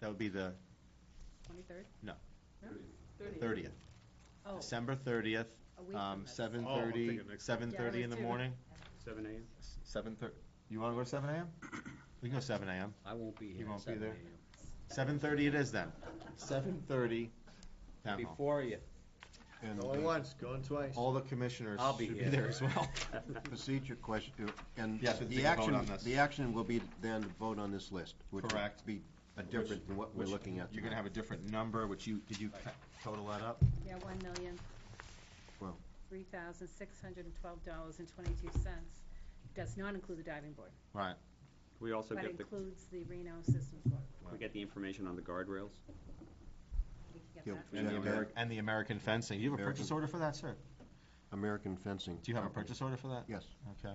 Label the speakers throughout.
Speaker 1: That would be the
Speaker 2: Twenty-third?
Speaker 1: No.
Speaker 2: Thirtieth.
Speaker 1: thirtieth,
Speaker 2: Oh,
Speaker 1: December thirtieth,
Speaker 2: a week
Speaker 1: um,
Speaker 2: from this.
Speaker 1: seven
Speaker 3: Oh, I'm
Speaker 1: thirty,
Speaker 3: thinking next
Speaker 1: seven thirty in the
Speaker 2: Yeah, me too.
Speaker 1: morning,
Speaker 3: Seven AM?
Speaker 1: seven thir, you wanna go to seven AM? We can go seven AM,
Speaker 4: I won't be
Speaker 1: You
Speaker 4: here.
Speaker 1: won't
Speaker 4: at
Speaker 1: be
Speaker 4: 7
Speaker 1: there?
Speaker 4: a.m.
Speaker 1: seven thirty it is then, seven thirty,
Speaker 3: Uh-huh.
Speaker 1: town hall.
Speaker 4: Before you.
Speaker 5: And
Speaker 6: Going
Speaker 5: the
Speaker 6: once, going twice.
Speaker 1: All the commissioners
Speaker 4: I'll be
Speaker 1: should be
Speaker 4: here.
Speaker 1: there as well.
Speaker 5: procedure question, uh, and
Speaker 1: Yes, we
Speaker 5: the
Speaker 1: can vote
Speaker 5: action,
Speaker 1: on this.
Speaker 5: the action will be then to vote on this list, which would
Speaker 1: Correct.
Speaker 5: be a different than what we're
Speaker 1: Which-
Speaker 5: looking at
Speaker 1: You're gonna
Speaker 5: tonight.
Speaker 1: have a different number, which you, did you ca- total that up?
Speaker 2: Yeah, one million.
Speaker 5: Well.
Speaker 2: Three thousand six hundred and twelve dollars and twenty-two cents. Does not include the diving board,
Speaker 1: Right,
Speaker 3: We also
Speaker 2: but
Speaker 3: get the,
Speaker 2: includes the Reno Systems Board.
Speaker 3: we get the information on the guardrails.
Speaker 2: We can
Speaker 5: Yeah,
Speaker 2: get that.
Speaker 1: and the
Speaker 5: Yeah,
Speaker 1: Ameri, and the American fencing, you have a
Speaker 5: American-
Speaker 1: purchase order for that, sir?
Speaker 5: American fencing.
Speaker 1: Do you have a purchase order for that?
Speaker 5: Yes,
Speaker 1: Okay.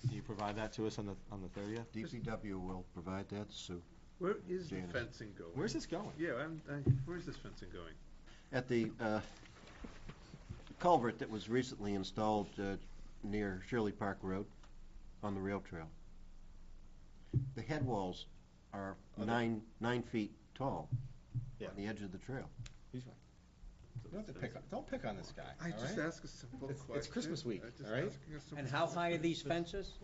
Speaker 1: Can you provide that to us on the, on the thirtieth?
Speaker 5: DCW will provide that, Sue.
Speaker 3: Where is
Speaker 5: Janice.
Speaker 3: fencing going?
Speaker 1: Where's this going?
Speaker 3: Yeah, I'm, I, where's this fencing going?
Speaker 5: At the uh, culvert that was recently installed uh, near Shirley Park Road on the rail trail. The head walls are
Speaker 1: they-
Speaker 5: nine, nine feet tall
Speaker 1: Yeah.
Speaker 5: on the edge of the trail.
Speaker 1: Don't pick, on- don't pick on this guy,
Speaker 3: I
Speaker 1: all
Speaker 3: just
Speaker 1: right?
Speaker 3: ask a simple
Speaker 1: It's- it's
Speaker 3: question.
Speaker 1: Christmas week,
Speaker 3: I just
Speaker 1: all right?
Speaker 3: asking a simple
Speaker 4: And how high are these
Speaker 3: question.
Speaker 4: fences?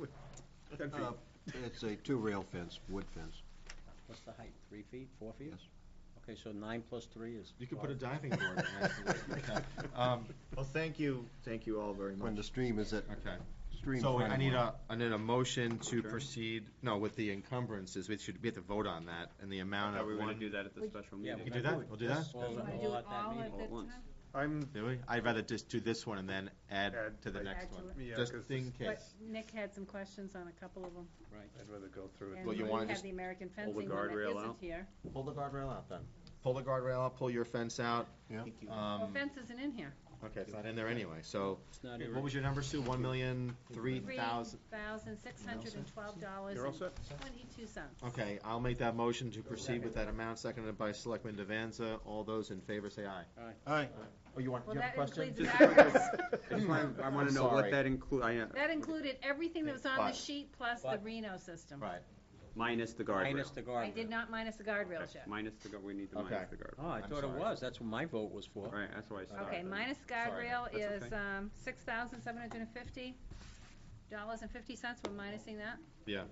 Speaker 3: Ten feet.
Speaker 5: Uh, It's a two-rail fence, wood fence.
Speaker 4: What's the height, three feet, four feet?
Speaker 5: Yes.
Speaker 4: Okay, so nine plus three is.
Speaker 1: You could put a diving board in there. Um,
Speaker 6: Well, thank you, thank you all very
Speaker 5: When
Speaker 6: much.
Speaker 5: the stream is at,
Speaker 1: Okay.
Speaker 5: stream.
Speaker 1: So I need
Speaker 5: framework.
Speaker 1: a, I need a motion to
Speaker 3: Okay.
Speaker 1: proceed, no, with the encumbrances, we should, we have to vote on that, and the amount
Speaker 3: Are
Speaker 1: of
Speaker 3: we gonna do
Speaker 1: one.
Speaker 3: that at the
Speaker 2: We-
Speaker 3: special
Speaker 4: Yeah,
Speaker 3: meeting?
Speaker 1: We can do that, we'll do that.
Speaker 4: Just all-
Speaker 2: You wanna
Speaker 4: all
Speaker 2: do it
Speaker 4: at that
Speaker 2: all
Speaker 4: meeting.
Speaker 2: at
Speaker 3: all
Speaker 2: the
Speaker 3: at once.
Speaker 2: time?
Speaker 3: I'm,
Speaker 1: Do we? I'd rather just do this one and then add
Speaker 3: Add,
Speaker 1: to the
Speaker 3: like-
Speaker 1: next
Speaker 2: Add to
Speaker 1: one,
Speaker 3: yeah,
Speaker 1: just
Speaker 3: 'cause
Speaker 1: in
Speaker 2: But
Speaker 1: case.
Speaker 2: Nick had some questions on a couple of them.
Speaker 3: I'd rather go through it.
Speaker 2: And
Speaker 1: Well, you
Speaker 2: we
Speaker 1: wanna
Speaker 2: have
Speaker 1: just
Speaker 2: the American
Speaker 3: pull the
Speaker 2: fencing one that
Speaker 3: guardrail
Speaker 2: isn't
Speaker 3: out?
Speaker 2: here.
Speaker 1: Pull the guardrail out then. Pull the guardrail out, pull your fence out.
Speaker 5: Yeah.
Speaker 2: Well,
Speaker 1: Um,
Speaker 2: fence isn't in here.
Speaker 1: okay, it's not in there anyway, so,
Speaker 4: It's not
Speaker 1: what was your number, Sue? One million, three
Speaker 2: Three
Speaker 1: thousand?
Speaker 2: thousand six hundred and twelve dollars
Speaker 3: You're all set?
Speaker 2: twenty-two cents.
Speaker 1: Okay, I'll make that motion to proceed with that amount, seconded by Selectman Devanza. All those in favor say aye.
Speaker 5: All right,
Speaker 1: Oh, you want,
Speaker 2: Well,
Speaker 1: you have a
Speaker 2: that
Speaker 1: question?
Speaker 2: includes
Speaker 3: Just
Speaker 2: that.
Speaker 3: I just wanna- I wanna
Speaker 1: I'm
Speaker 3: know what
Speaker 1: sorry.
Speaker 3: that include, I, uh,
Speaker 2: That included everything that was on the
Speaker 1: But-
Speaker 2: sheet plus the
Speaker 4: but-
Speaker 2: Reno system.
Speaker 1: Right,
Speaker 3: minus the guardrail.
Speaker 4: Minus the guardrail.
Speaker 2: I did not minus the guardrail
Speaker 3: Okay,
Speaker 2: yet.
Speaker 3: Minus the, gu- we need to
Speaker 1: Okay.
Speaker 3: minus the guardrail.
Speaker 4: Oh, I
Speaker 1: I'm
Speaker 4: thought it
Speaker 1: sorry.
Speaker 4: was, that's what my vote was for.
Speaker 3: All right, that's why I stopped.
Speaker 2: Okay,
Speaker 3: then.
Speaker 2: minus guardrail is,
Speaker 3: That's okay.
Speaker 2: um, six thousand seven hundred and fifty dollars and fifty cents, we're minusing that.
Speaker 1: yeah.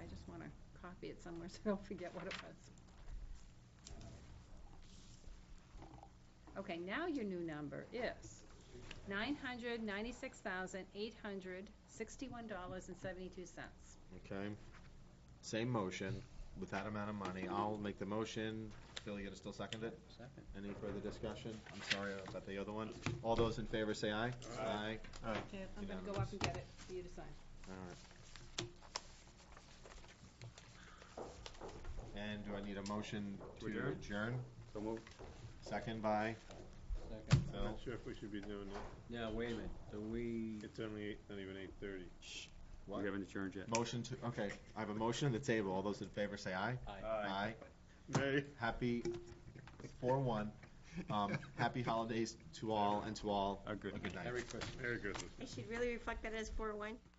Speaker 2: I just wanna copy it somewhere so I don't forget what it was. Okay, now your new number is nine hundred ninety-six thousand eight hundred sixty-one dollars and seventy-two cents.
Speaker 1: Okay. Same motion, with that amount of money, I'll make the motion. Phil, you gonna still second it?
Speaker 4: Second.
Speaker 1: Any further discussion? I'm sorry about the other one. All those in favor say aye. Aye.
Speaker 2: I'm gonna go up and get it for you to sign.
Speaker 1: All right. And do I need a motion to
Speaker 3: To adjourn?
Speaker 1: adjourn?
Speaker 3: So move.
Speaker 1: Second by
Speaker 4: Second.
Speaker 1: Phil.
Speaker 3: sure if we should be doing
Speaker 4: Now, wait a minute, do we,
Speaker 3: It's only eight, not even eight thirty.
Speaker 1: What?
Speaker 3: We haven't adjourned yet.
Speaker 1: Motion to, okay, I have a motion on the table. All those in favor say aye. Aye.
Speaker 3: Nay.
Speaker 1: Happy, four one. Um, happy holidays to all and to all.
Speaker 3: A good-
Speaker 1: night.
Speaker 3: Merry Christmas.
Speaker 7: You should really reflect that as four one.